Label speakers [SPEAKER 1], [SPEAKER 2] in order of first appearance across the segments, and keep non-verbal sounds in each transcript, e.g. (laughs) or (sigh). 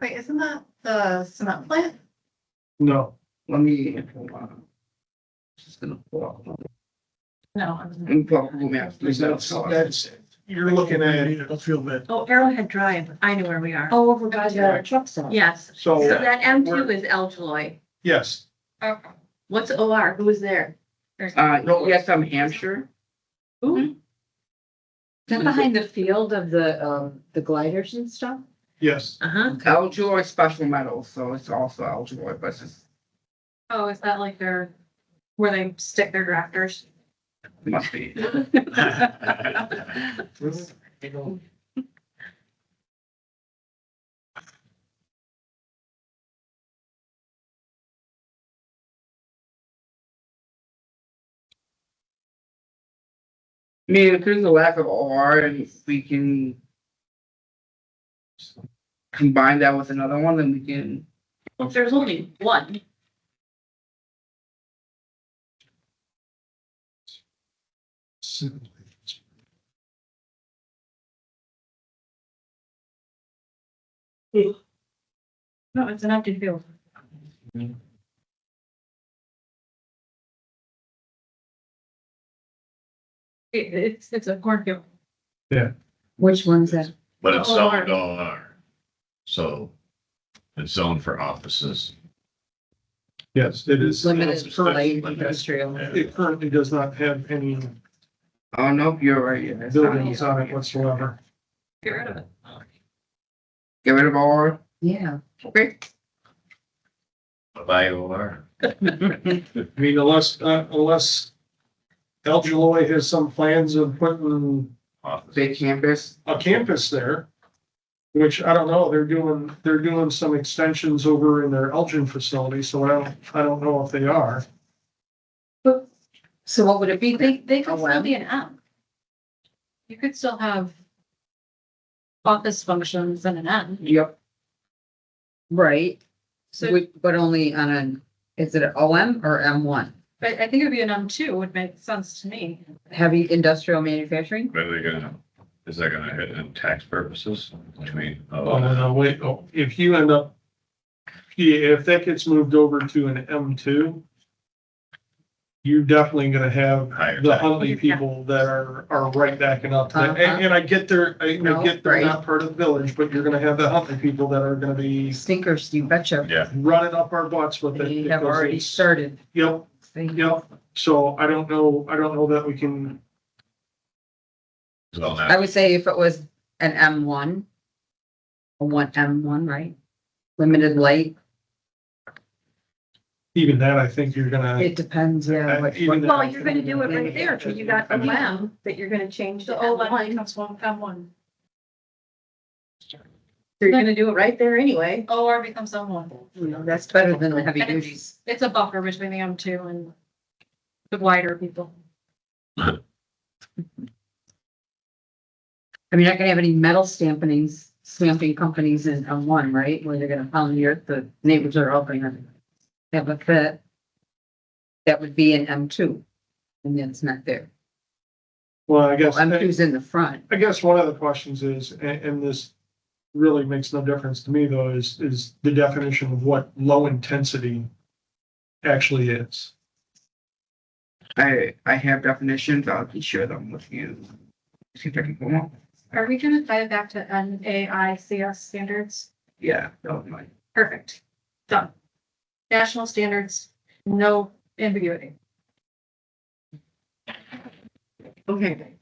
[SPEAKER 1] Wait, isn't that the cement plant?
[SPEAKER 2] No, let me. Just gonna pull up.
[SPEAKER 1] No. I'm-
[SPEAKER 2] And Google Maps. Is that- that's-
[SPEAKER 3] You're looking at,
[SPEAKER 4] Oh, Arrowhead Drive, I know where we are.
[SPEAKER 1] Oh, over by the truck stop.
[SPEAKER 4] Yes, so
[SPEAKER 3] so,
[SPEAKER 4] that M two is Elgeloy.
[SPEAKER 3] yes,
[SPEAKER 1] Okay.
[SPEAKER 4] What's O R? Who is there?
[SPEAKER 2] Uh, no, yes, I'm Hampshire.
[SPEAKER 4] Ooh,
[SPEAKER 5] Is that behind the field of the, um, the gliders and stuff?
[SPEAKER 3] yes.
[SPEAKER 4] uh-huh.
[SPEAKER 2] Eljoy Special Metals, so it's also Eljoy, but it's,
[SPEAKER 1] Oh, is that like their, where they stick their drafters?
[SPEAKER 2] it must be. I mean, if there's a lack of OR and we can combine that with another one, then we can,
[SPEAKER 4] Well, There's only one.
[SPEAKER 1] No, it's an empty field. It, it's, it's a cornfield.
[SPEAKER 5] Which one's that?
[SPEAKER 6] But it's
[SPEAKER 1] Oh,
[SPEAKER 6] zoned R. So it's zoned for offices.
[SPEAKER 3] Yes, it is.
[SPEAKER 5] Limited for light
[SPEAKER 6] Limited.
[SPEAKER 5] industrial.
[SPEAKER 3] It currently does not have any
[SPEAKER 2] oh, no, you're right. yeah, it's not-
[SPEAKER 3] buildings on it whatsoever.
[SPEAKER 1] Get rid of it.
[SPEAKER 2] Get rid of OR,
[SPEAKER 1] (laughs)
[SPEAKER 5] Yeah.
[SPEAKER 2] okay?
[SPEAKER 6] By OR.
[SPEAKER 3] I mean, unless, uh, unless Elgeloy has some plans of putting
[SPEAKER 6] office.
[SPEAKER 2] Big campus,
[SPEAKER 3] a campus there. Which I don't know, they're doing, they're doing some extensions over in their Elgin facility, so I don't, I don't know if they are.
[SPEAKER 5] So what would it be?
[SPEAKER 1] They, they
[SPEAKER 5] A
[SPEAKER 1] could still
[SPEAKER 5] lab?
[SPEAKER 1] be an app. You could still have office functions and an app.
[SPEAKER 2] yep,
[SPEAKER 5] Right,
[SPEAKER 1] So,
[SPEAKER 5] Would- but only on an, is it an OM or M one?
[SPEAKER 1] but I think it'd be an M two would make sense to me.
[SPEAKER 5] Heavy industrial manufacturing?
[SPEAKER 6] But they're gonna, is that gonna hit in tax purposes between?
[SPEAKER 3] Oh, no, no, wait, oh, if you end up, yeah, if that gets moved over to an M two, you're definitely gonna have
[SPEAKER 6] Higher
[SPEAKER 3] the
[SPEAKER 6] tax.
[SPEAKER 3] Huntley people that are, are right backing up. to that.
[SPEAKER 5] Uh-huh.
[SPEAKER 3] And, and I get their, I I get they're not part of the village, but you're gonna have the Huntley people that are gonna be
[SPEAKER 5] Stinkers, you betcha.
[SPEAKER 6] Yeah,
[SPEAKER 3] running up our butts with it.
[SPEAKER 5] They have
[SPEAKER 3] because
[SPEAKER 5] already
[SPEAKER 3] it's-
[SPEAKER 5] started.
[SPEAKER 3] Yep,
[SPEAKER 5] They-
[SPEAKER 3] yep. So I don't know, I don't know that we can,
[SPEAKER 6] well,
[SPEAKER 5] I
[SPEAKER 6] now,
[SPEAKER 5] would say if it was an M one. A one, M one, right? Limited light,
[SPEAKER 3] even that, I think you're gonna.
[SPEAKER 5] it depends, yeah. what-
[SPEAKER 3] Uh, even that,
[SPEAKER 4] Well,
[SPEAKER 3] I
[SPEAKER 4] you're
[SPEAKER 3] think
[SPEAKER 4] gonna do it right there, so you got
[SPEAKER 3] I
[SPEAKER 4] the
[SPEAKER 3] mean,
[SPEAKER 4] lab that you're gonna change
[SPEAKER 1] The
[SPEAKER 4] to
[SPEAKER 1] old
[SPEAKER 4] O
[SPEAKER 1] one
[SPEAKER 4] one.
[SPEAKER 1] becomes one M one.
[SPEAKER 4] You're gonna do it right there anyway.
[SPEAKER 1] OR becomes M one.
[SPEAKER 5] you know, That's better than the heavy
[SPEAKER 1] And it's-
[SPEAKER 5] duties.
[SPEAKER 1] It's a buffer between the M two and the wider people.
[SPEAKER 5] I mean, I can have any metal stampings, stamping companies in, on one, right, where they're gonna pound the earth, the neighbors are all gonna have a fit. That would be in M two, and that's not there.
[SPEAKER 3] Well, I guess.
[SPEAKER 5] M two's in the front,
[SPEAKER 3] I guess one of the questions is, and, and this really makes no difference to me though, is, is the definition of what low intensity actually is.
[SPEAKER 2] I, I have definitions, I'll share them with you. See if I can pull them up,
[SPEAKER 1] Are we gonna tie it back to N A I C S standards?
[SPEAKER 2] yeah, that was mine.
[SPEAKER 1] Perfect. Done. National standards, no ambiguity. (laughs)
[SPEAKER 5] okay,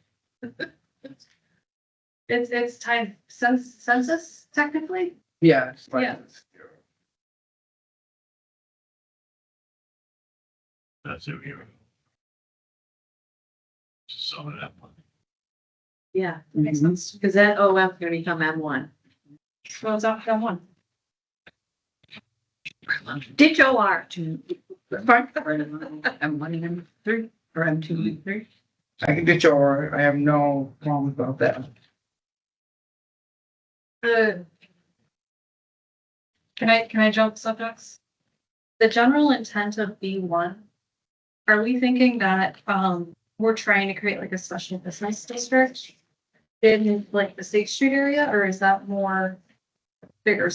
[SPEAKER 1] It's, it's tied cens- census technically?
[SPEAKER 2] yeah. it's fine.
[SPEAKER 1] Yeah.
[SPEAKER 6] that's it. we were- Just Zone it up.
[SPEAKER 4] Yeah,
[SPEAKER 1] Makes
[SPEAKER 5] Mhm.
[SPEAKER 1] sense.
[SPEAKER 4] because that O M is gonna become M one.
[SPEAKER 1] Well, it's off M one.
[SPEAKER 4] Ditch O R to
[SPEAKER 2] It's fine,
[SPEAKER 5] M one and M three, or M two and three.
[SPEAKER 2] I can ditch or, I have no problems about that.
[SPEAKER 1] The. Can I, can I jump subjects? The general intent of B one, are we thinking that, um, we're trying to create like a special business district? In like the State Street area, or is that more bigger